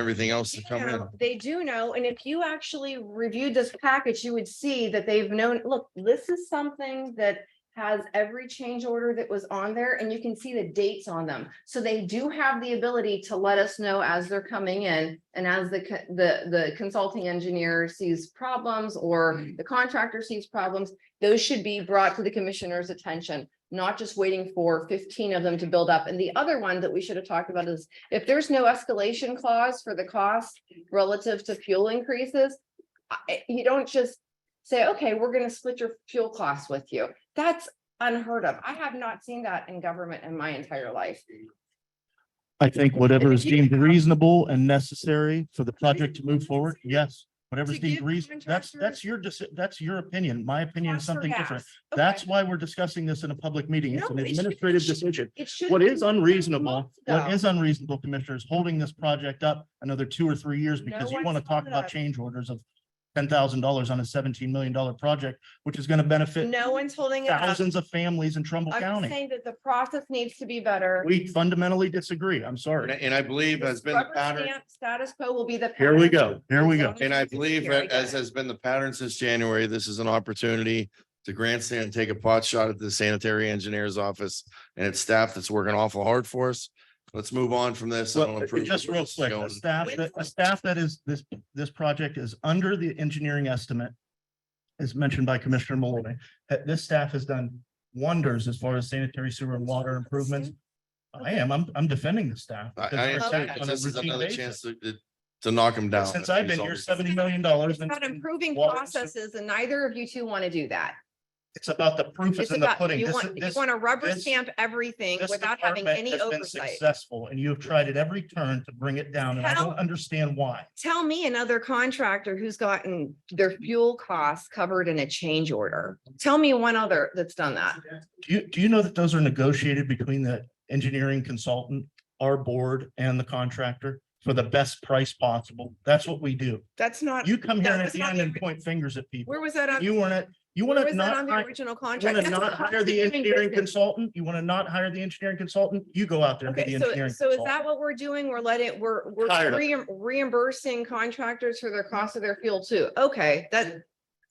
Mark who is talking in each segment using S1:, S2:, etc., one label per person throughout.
S1: everything else to come in.
S2: know, They do know, and if you actually reviewed this package, you would see that they've known, look, this is something that has every change order that was on there, and you can see the dates on them. So they do have the ability to let us know as they're coming in and as the, co- the, the consulting engineer sees problems or
S1: Hmm.
S2: the contractor sees problems, those should be brought to the commissioner's attention, not just waiting for fifteen of them to build up. And the other one that we should have talked about is if there's no escalation clause for the cost relative to fuel increases, I- you don't just say, okay, we're gonna split your fuel costs with you. That's unheard of. I have not seen that in government in my entire life.
S3: I think whatever is
S4: you
S3: deemed
S4: have-
S3: reasonable and necessary for the project to move forward, yes. Whatever's
S4: To
S3: deemed
S4: give
S3: reasonable. that's, that's
S4: contractors-
S3: your, deci- that's your opinion. My opinion is
S4: Costs or
S3: something different.
S4: gas? Okay.
S3: That's why we're discussing this in a public meeting. It's
S4: No,
S3: an
S4: it should-
S3: administrative
S4: it should-
S3: decision.
S2: It should.
S3: What
S2: be
S3: is unreasonable,
S2: months
S3: what
S2: ago.
S3: is unreasonable, commissioners, holding this project up another two or three years because you
S4: one's
S3: want to talk
S4: holding
S3: about
S4: up.
S3: change orders of ten thousand dollars on a seventeen million dollar project, which is going to benefit
S4: No one's holding it up.
S3: thousands of families in Trumbull
S2: I'm
S3: County.
S2: saying that the process needs to be better.
S3: We fundamentally disagree. I'm
S1: And I-
S3: sorry.
S1: and I believe has been the
S2: Rubber
S1: pattern,
S2: stamp Status quo will be the.
S3: Here we
S2: pattern.
S3: go. Here we go.
S1: and I believe
S2: Here we
S1: that as
S2: go.
S1: has been the pattern since January, this is an opportunity to grandstand and take a pot shot at the sanitary engineer's office and its staff that's working awful hard for us. Let's move on from this. and I'll
S3: Well, uh,
S1: improve
S3: just
S1: where
S3: real
S1: this is
S3: quick, a
S1: going.
S3: staff, that- a staff that is, this, this project is under the engineering estimate. As mentioned by Commissioner Malloy, that this staff has done wonders as far as sanitary sewer and water improvements. I am, I'm, I'm defending the staff.
S1: I, I
S3: because they're
S1: understand,
S3: attacked
S1: but
S3: on a
S1: this is
S3: routine
S1: another
S3: basis.
S1: chance to, to- to knock them down.
S3: Since I've been here,
S1: It's all-
S3: seventy million dollars.
S2: It's About improving
S3: Water-
S2: processes and neither of you two want to do that.
S3: It's about the proof is
S2: It's
S3: in the
S2: about,
S3: pudding.
S2: you
S3: This-
S2: want, you
S3: this-
S2: want to rubber
S3: this-
S2: stamp everything
S3: this
S2: without having
S3: department
S2: any
S3: has been
S2: oversight.
S3: Successful, and you have tried at every turn to bring it down, and I
S2: How-
S3: don't understand why.
S2: Tell me another contractor who's gotten their fuel costs covered in a change order. Tell me one other that's done that.
S3: Do you, do you know that those are negotiated between the engineering consultant, our board and the contractor for the best price possible? That's what we do.
S4: That's not,
S3: You come here
S4: No,
S3: and at
S4: that's
S3: the
S4: not
S3: end
S4: the
S3: and
S4: ori-
S3: point fingers at people.
S4: where was that on?
S3: You want to, you want
S2: Where
S3: to
S2: was that on
S3: not,
S2: the
S3: want
S2: original
S3: to
S2: contract?
S3: not hire the engineering consultant? You want to not hire the engineering consultant? You go out there and be the
S2: Okay, so,
S3: engineering
S2: so is
S3: consultant.
S2: that what we're doing? We're letting, we're,
S3: Tired
S2: we're reim-
S3: of
S2: reimbursing contractors for their cost of their fuel too. Okay, that,
S5: As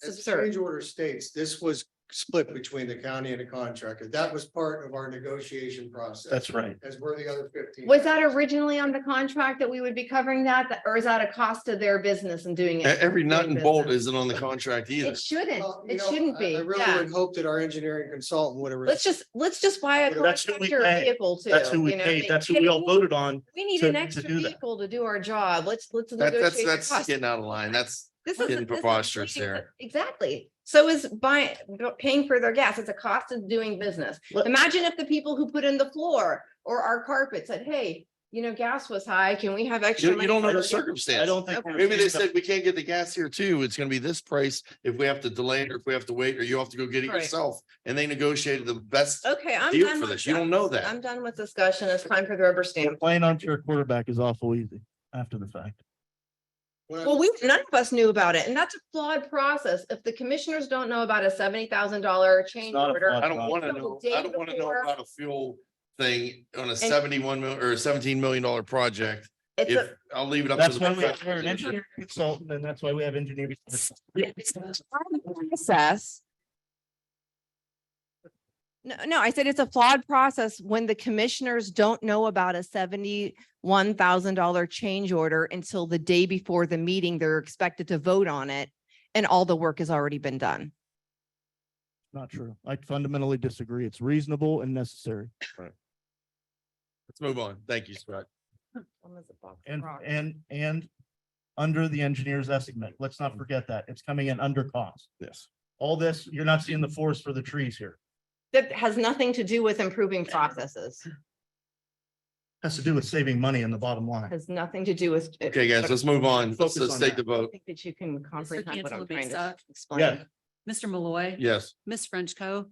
S5: the
S2: absurd.
S5: change order states, this was split between the county and the contractor. That was part of our negotiation process.
S3: That's right.
S5: As were the other fifteen.
S2: was that originally on the contract that we would be covering that? That- Or is that a cost of their business and doing
S1: E-
S2: it?
S1: Every nut
S2: doing
S1: and bolt
S2: business?
S1: isn't on the contract either.
S2: It shouldn't,
S5: Well, you
S2: it
S5: know,
S2: shouldn't
S5: I-
S2: be,
S5: I really
S2: yeah.
S5: would hope that our engineering consultant would have.
S2: Let's just, let's just buy a
S3: That's who we
S2: contractor
S3: pay.
S2: vehicle too.
S3: That's who we
S2: you know,
S3: paid.
S2: they-
S3: That's who we all voted on.
S2: We need
S3: to-
S2: an
S3: to
S2: extra
S3: do that.
S2: vehicle to do our job. Let's, let's
S1: That, that's,
S2: negotiate the
S1: that's
S2: cost.
S1: getting out of line. That's,
S2: This is-
S1: getting
S2: this is
S1: preposterous
S2: leading to-
S1: here.
S2: Exactly. So is buying, paying for their gas. It's a cost of doing business.
S3: Let-
S2: Imagine if the people who put in the floor or our carpet said, hey, you know, gas was high. Can we have extra?
S1: you, you
S2: money
S1: don't know
S2: for
S1: the
S2: gas?"
S1: circumstance.
S3: I don't think.
S2: Okay.
S1: Maybe they said, we can't get the gas here too. It's gonna be this price if we have to delay it or if we have to wait or you have to go get it
S2: Right.
S1: yourself. And they negotiated the best
S2: Okay, I'm
S1: deal
S2: done
S1: for
S2: with
S1: this. You
S2: that.
S1: don't know
S2: I'm
S1: that.
S2: done with discussion. It's time for the rubber stamp.
S3: Playing armchair quarterback is awful easy after the fact.
S5: When I-
S2: Well, we, none of us knew about it, and that's a flawed process. If the commissioners don't know about a seventy thousand dollar change
S3: not a
S2: order.
S3: flawed-
S1: I don't wanna
S2: Until
S1: know,
S2: the
S1: I
S2: day
S1: don't wanna know
S2: before.
S1: about a fuel thing on a seventy-one mil or seventeen million dollar project.
S2: It's
S1: If,
S2: a,
S1: I'll leave it up. to
S3: That's
S1: the
S3: why we have
S1: professionals.
S3: an engineering consultant and that's why we have engineers.
S6: It's a flawed Process.
S2: no, no, I said it's a flawed process when the commissioners don't know about a seventy-one thousand dollar change order until the day before the meeting, they're expected to vote on it. And all the work has already been done.
S3: Not true. I fundamentally disagree. It's reasonable and necessary.
S1: Let's move on. Thank you, Scott.
S3: And, and, and under the engineer's estimate, let's not forget that. It's coming in under cost.
S1: Yes.
S3: All this, you're not seeing the forest for the trees here.
S2: That has nothing to do with improving processes,
S3: Has to do with saving money in the bottom line.
S2: has nothing to do with.
S1: Okay, guys, let's move on. Let's,
S3: Focus
S1: let's
S3: on
S1: take the
S3: that.
S2: I
S1: vote.
S2: think that you can
S6: Mr.
S2: comprehend what I'm trying
S6: Cantala
S2: to
S6: Mesa,
S2: explain.
S6: Mr. Malloy.
S1: Yes.
S6: Ms. Frenchco.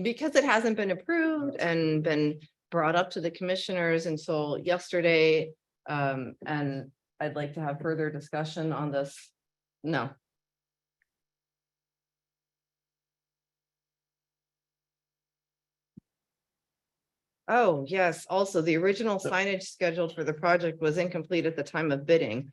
S2: because it hasn't been approved and been brought up to the commissioners until yesterday. Um, and I'd like to have further discussion on this. No, Oh, yes. Also, the original signage scheduled for the project was incomplete at the time of bidding.